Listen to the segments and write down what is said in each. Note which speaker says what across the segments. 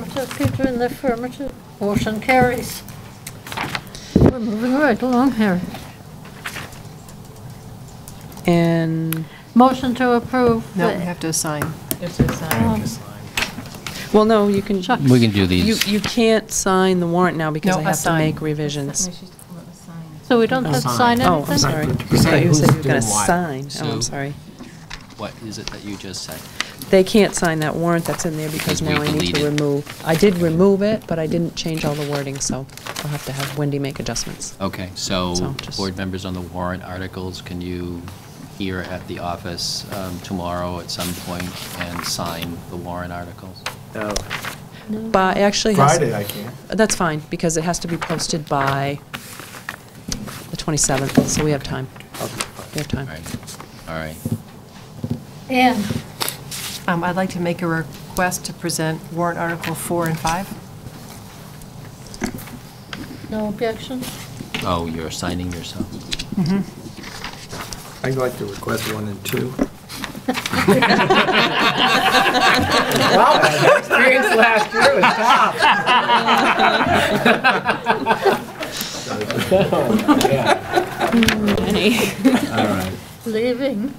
Speaker 1: Affirmative, Peter in the affirmative. Motion carries. We're moving right along here.
Speaker 2: And,
Speaker 1: Motion to approve.
Speaker 3: No,
Speaker 1: the-
Speaker 3: we have to assign.
Speaker 1: um,
Speaker 2: well, no, you can, you,
Speaker 4: We can do these.
Speaker 2: you can't sign the warrant now because
Speaker 3: No,
Speaker 2: I have to
Speaker 3: assign.
Speaker 2: make revisions.
Speaker 1: So we don't have to sign
Speaker 2: Oh, I'm
Speaker 1: anything?
Speaker 2: sorry. I
Speaker 4: Decide
Speaker 2: thought you
Speaker 4: who's
Speaker 2: said you were going to
Speaker 4: doing what.
Speaker 2: sign. Oh,
Speaker 4: So-
Speaker 2: I'm sorry.
Speaker 4: What is it that you just said?
Speaker 2: They can't sign that warrant that's in there because
Speaker 4: Because
Speaker 2: now
Speaker 4: we
Speaker 2: I need to
Speaker 4: deleted.
Speaker 2: remove. I did remove it, but I didn't change all the wording, so I'll have to have Wendy make adjustments.
Speaker 4: Okay, so
Speaker 2: So just-
Speaker 4: board members on the warrant articles, can you here at the office um, tomorrow at some point and sign the warrant articles?
Speaker 5: Oh.
Speaker 2: But it actually has.
Speaker 6: Friday, I can't.
Speaker 2: That's fine, because it has to be posted by the 27th, so we have time. We have
Speaker 4: All
Speaker 2: time.
Speaker 4: right, all right.
Speaker 1: And
Speaker 3: Um, I'd like to make a request to present warrant Article 4 and 5.
Speaker 1: no objection?
Speaker 4: Oh, you're signing yourself.
Speaker 6: I'd like to request one and two.
Speaker 5: All right.
Speaker 1: Leaving.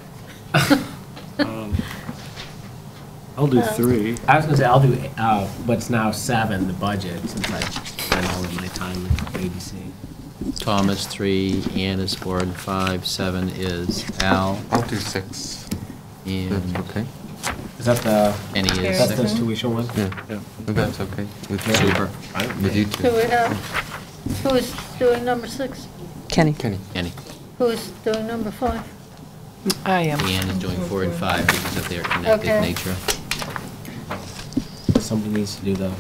Speaker 5: I'll do
Speaker 1: Uh,
Speaker 5: three. I was gonna say, I'll do uh, what's now seven, the budget, since I spent all of my time babysitting.
Speaker 4: Tom is three, Ann is four and five, seven is Al,
Speaker 7: I'll do six. That's
Speaker 4: and
Speaker 7: okay.
Speaker 5: Is that the,
Speaker 4: Annie is
Speaker 5: that's the
Speaker 1: Mm-hmm.
Speaker 4: six.
Speaker 5: tuition one?
Speaker 7: Yeah, that's okay. With
Speaker 4: Super.
Speaker 7: With you two.
Speaker 1: Do we have, who is doing number six?
Speaker 2: Kenny?
Speaker 7: Kenny.
Speaker 4: Annie,
Speaker 1: Who is doing number five?
Speaker 3: I am.
Speaker 4: Ann is doing four and five because of their connected
Speaker 1: Okay.
Speaker 4: nature.
Speaker 5: Somebody needs to do the.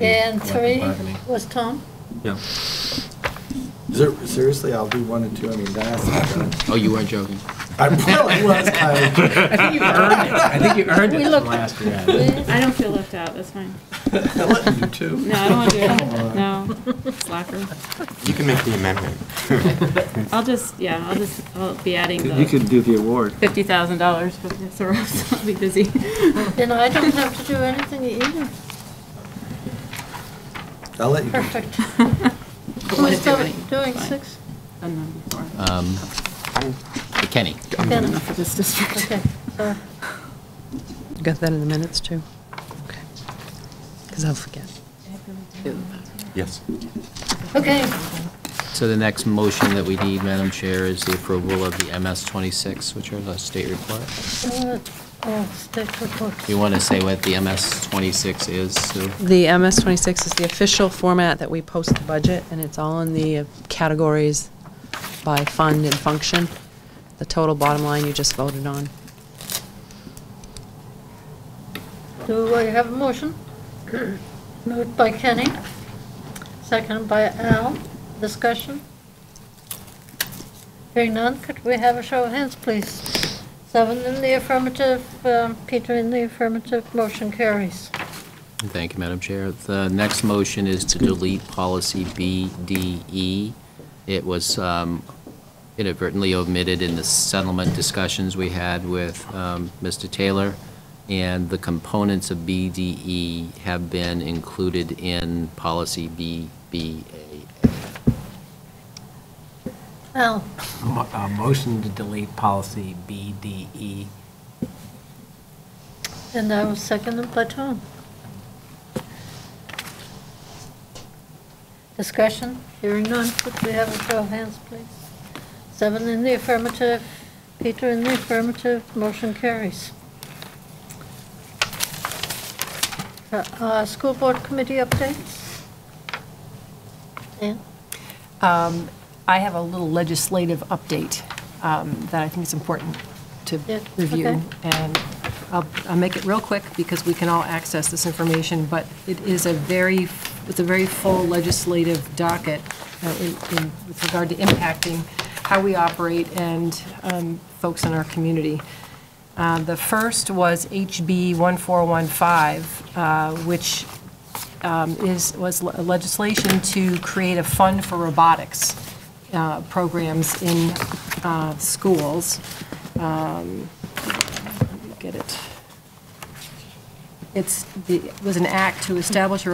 Speaker 1: And
Speaker 5: collective
Speaker 1: three
Speaker 5: bargaining.
Speaker 1: was Tom?
Speaker 5: Yeah.
Speaker 6: Ser- Seriously, I'll do one and two, I mean, that's not done.
Speaker 4: Oh, you weren't joking?
Speaker 6: I really was, Kyle.
Speaker 5: I think you earned it. I think you earned
Speaker 1: We
Speaker 5: it from
Speaker 1: looked-
Speaker 5: last year.
Speaker 1: We-
Speaker 8: I don't feel left out, that's fine.
Speaker 6: You too.
Speaker 8: No, I don't want to do it, no, slacker.
Speaker 7: You can make the amendment.
Speaker 8: I'll just, yeah, I'll just, I'll be adding
Speaker 9: You
Speaker 8: the
Speaker 9: could do the award.
Speaker 8: fifty thousand dollars for the Soros, I'll be busy.
Speaker 1: And I don't have to do anything either.
Speaker 6: I'll let you. do it.
Speaker 1: Perfect.
Speaker 8: Don't
Speaker 1: Who
Speaker 8: wanna
Speaker 1: is
Speaker 8: do
Speaker 1: doing
Speaker 8: any.
Speaker 1: doing
Speaker 8: Fine.
Speaker 1: six?
Speaker 8: Done them before.
Speaker 4: Um, Kenny,
Speaker 1: Ken.
Speaker 8: Enough for this district.
Speaker 1: Okay, uh, sorry.
Speaker 2: You Got that in the minutes, too? Okay. Because I'll forget.
Speaker 7: Yes.
Speaker 1: Okay,
Speaker 4: so the next motion that we need, Madam Chair, is the approval of the MS 26, which are the state report.
Speaker 1: uh, oh, state report.
Speaker 4: You want to say what the MS 26 is, Sue?
Speaker 2: The MS-26 is the official format that we post the budget, and it's all in the categories by fund and function. The total bottom line you just voted on.
Speaker 1: Do I have a motion? Moved by Kenny, seconded by Al. Discussion? Hearing none, could we have a show of hands, please? Seven in the affirmative, um, Peter in the affirmative, motion carries.
Speaker 4: Thank you, Madam Chair. The next motion is to delete policy BDE. It was um, inadvertently omitted in the settlement discussions we had with um, Mr. Taylor, and the components of BDE have been included in policy BBAA.
Speaker 1: Al,
Speaker 5: Mo- uh, Motion to delete policy E. BDE.
Speaker 1: and I was seconded by Tom. Discussion? Hearing none, could we have a show of hands, please? Seven in the affirmative, Peter in the affirmative, motion carries. Uh, uh, School Board Committee updates? Yeah,
Speaker 3: Um, I have a little legislative update um, that I think is important to
Speaker 1: Yeah, okay.
Speaker 3: review. And I'll, I'll make it real quick because we can all access this information, but it is a very, it's a very full legislative docket uh, in- in- with regard to impacting how we operate and um, folks in our community. Uh, The first was HB 1415, uh, which um, is, was le- legislation to create a fund for robotics uh, programs in uh, schools. Um, Let me Get it. It's, the- it was an act to establish a